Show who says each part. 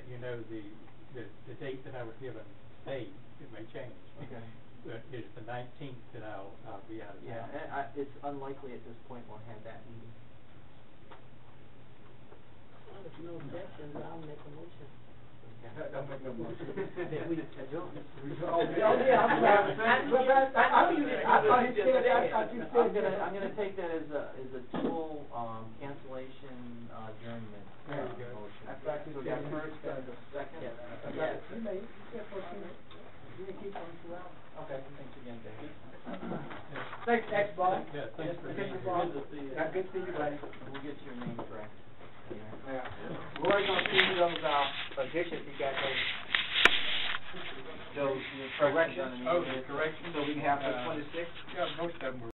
Speaker 1: you know, the, the, the date that I was given stayed, it may change.
Speaker 2: Okay.
Speaker 1: But it's the nineteenth that I'll, I'll be out of
Speaker 2: Yeah,
Speaker 1: town.
Speaker 2: and I, it's unlikely at this point we'll have that meeting.
Speaker 3: Well, If no objections, I'll make a motion.
Speaker 2: Okay.
Speaker 4: Don't make no motion.
Speaker 2: That we adjourn.
Speaker 4: Oh, yeah, I'm sorry. But that- I, I, thought you- I, thought you said that, I thought you
Speaker 2: I'm
Speaker 4: said
Speaker 2: gonna,
Speaker 4: that.
Speaker 2: I'm gonna take that as a, as a tool, um, cancellation uh, adjournment.
Speaker 1: There you
Speaker 2: uh,
Speaker 1: go.
Speaker 2: motion.
Speaker 4: I thought you
Speaker 2: So we got
Speaker 4: said-
Speaker 2: first uh, and a second.
Speaker 4: Yes.
Speaker 2: Yes.
Speaker 4: You may, you said for two- you may keep on two hours.
Speaker 2: Okay, thanks again, Dave.
Speaker 4: Thanks, thanks, Bob.
Speaker 1: Yeah, thanks for
Speaker 4: Thanks,
Speaker 1: being here.
Speaker 4: Bob.
Speaker 2: Good to see you.
Speaker 4: Yeah, Good to see you, buddy.
Speaker 2: We'll get your name correct. Yeah.
Speaker 4: Yeah. We're gonna see those, uh, additions you got there.
Speaker 2: Those corrections on the.
Speaker 4: Corrections?
Speaker 2: meeting minutes.
Speaker 4: corrections.
Speaker 2: So we can have the
Speaker 4: Uh,
Speaker 2: twenty-six?
Speaker 4: Yeah, most of them were